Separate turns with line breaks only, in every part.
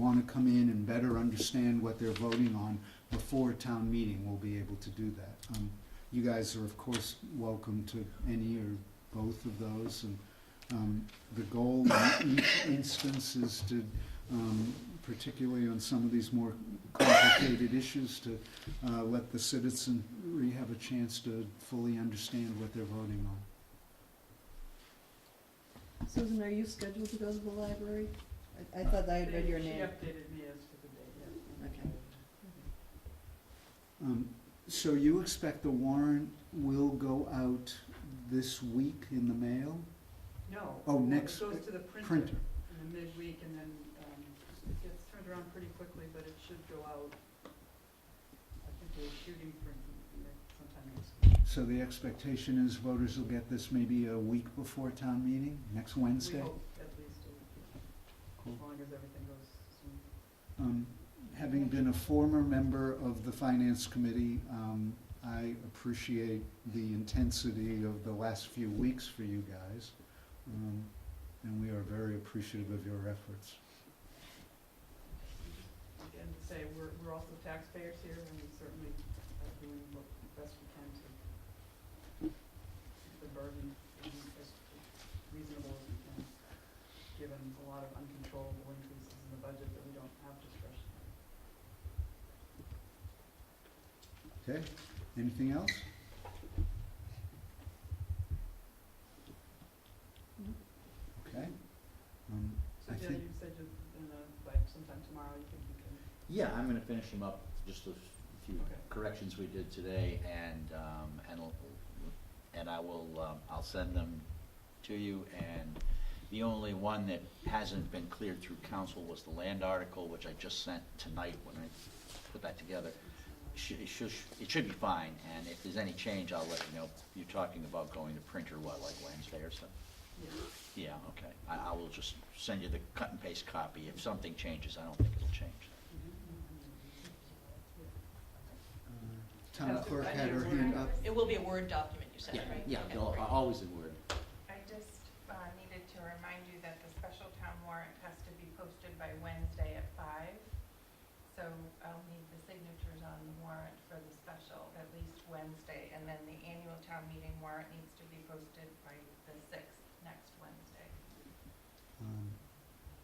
wanna come in and better understand what they're voting on before town meeting, we'll be able to do that. Um, you guys are of course welcome to any or both of those, and, um, the goal in each instance is to, um, particularly on some of these more complicated issues, to, uh, let the citizenry have a chance to fully understand what they're voting on.
Susan, are you scheduled to go to the library? I, I thought I had read your
She
name.
updated me as to the date, yes.
Okay.
Um, So you expect the warrant will go out this week in the mail?
No.
Oh,
well,
next
It goes to the printer
Printer?
in the midweek, and then um, it gets turned around pretty quickly, but it should go out. I think we're shooting for next- sometime next week.
So the expectation is voters will get this maybe a week before town meeting, next
We
Wednesday?
hope at least, a week,
Cool.
as long as everything goes smooth.
Um, Having been a former member of the Finance Committee, um, I appreciate the intensity of the last few weeks for you guys. um, And we are very appreciative of your efforts.
Again, to say, we're, we're also taxpayers here, and we certainly are doing what best we can to keep the burden as reasonable as we can, given a lot of uncontrollable increases in the budget that we don't have discretion.
Okay, anything else?
No.
Okay. Um,
So
I
Jenna,
think-
you said you, in the, like, sometime tomorrow, you think you can,
Yeah, I'm gonna finish them up, just a few
Okay.
corrections we did today, and, um, and, l- and I will, um, I'll send them to you, and the only one that hasn't been cleared through council was the land article, which I just sent tonight when I put that together. Should, it should, it should be fine, and if there's any change, I'll let you know. You're talking about going to print or what, like Wednesday or so?
yeah,
Yeah, okay. I, I will just send you the cut and paste copy. If something changes, I don't think it'll change.
uh, Town
Yeah.
clerk had her hand up.
It will be a Word document, you said,
Yeah,
right?
yeah,
Okay.
no, I- always in Word.
I just uh, needed to remind you that the special town warrant has to be posted by Wednesday at five. So I'll need the signatures on the warrant for the special at least Wednesday. And then the annual town meeting warrant needs to be posted by the sixth, next Wednesday.
Um,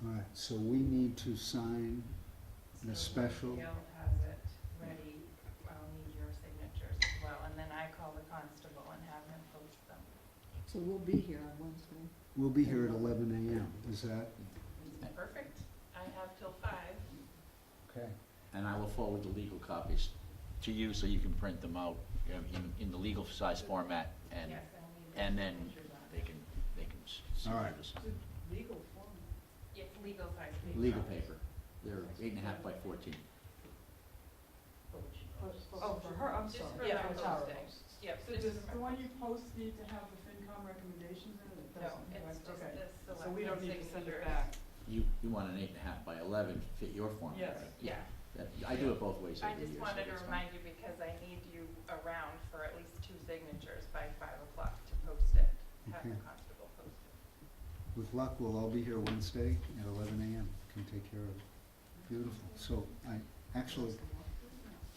All right, so we need to sign the
So
special.
Gail has it ready. I'll need your signatures as well. And then I call the constable and have him post them.
So we'll be here on Wednesday.
We'll be here at eleven AM, is that?
Perfect. I have till five.
Okay.
And I will forward the legal copies to you so you can print them out you know, in, in the legal size format and
Yes, I'll need the
and then
signatures on
they
it.
can, they can. s- see
All right.
what it is.
legal form.
It's legal size paper.
Legal paper. They're eight and a half by fourteen.
Oh, for her, I'm
Just
sorry.
for
Yeah,
the
for
Post
Tara.
Day. Yep, so
Does
just.
the one you post need to have the FinCom recommendations in it? It
No,
doesn't,
it's
right?
just
Okay.
the selectmen's signatures.
So we don't need to send it back.
You, you want an eight and a half by eleven to fit your format,
Yes.
right?
Yeah,
That- I do it both ways
I
every year.
just
so
wanted to
it's fine.
remind you because I need you around for at least two signatures by five o'clock to post it, have the
Okay.
constable post it.
With luck, we'll all be here Wednesday at eleven AM, can take care of it. Beautiful. So I, actually,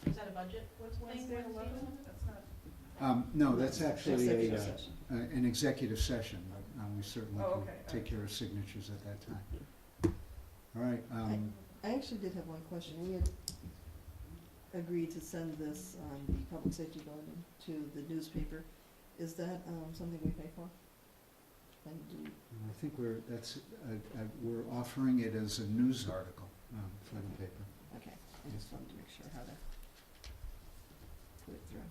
Is that a budget
What's
Wednesday
Wednesday,
at
eleven?
11?
That's not.
um, no, that's actually a, uh,
Executive session.
uh, an executive session, but um, we certainly
Oh,
can
okay, all
take
right.
care of signatures at that time. All right, um,
I actually did have one question. We had agreed to send this, um, the public safety bulletin to the newspaper. Is that, um, something we pay for? And do,
I think we're, that's, uh, uh, we're offering it as a news article um, for the paper.
okay, I just wanted to make sure how to put it through.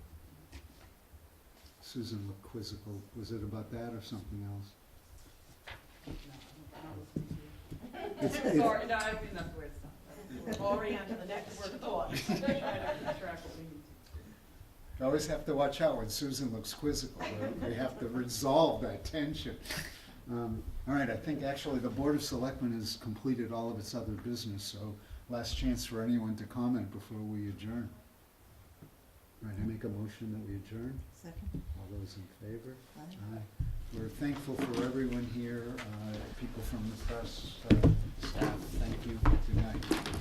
Susan looked quizzical. Was it about that or something else? It's- it's-
Sorry, no, I don't mean that the way it sounds. We're already
Already on to the next
We're
thought.
trying to keep track of what we need
You always have to watch out when Susan looks quizzical. We- We have to resolve that tension. Um, All right, I think actually the Board of Selectmen has completed all of its other business, so last chance for anyone to comment before we adjourn. All right, I make a motion that we adjourn.
Second?
All those in favor?
Aye.
Aye. We're thankful for everyone here, uh, people from the press, uh,
staff.
Thank you, good night.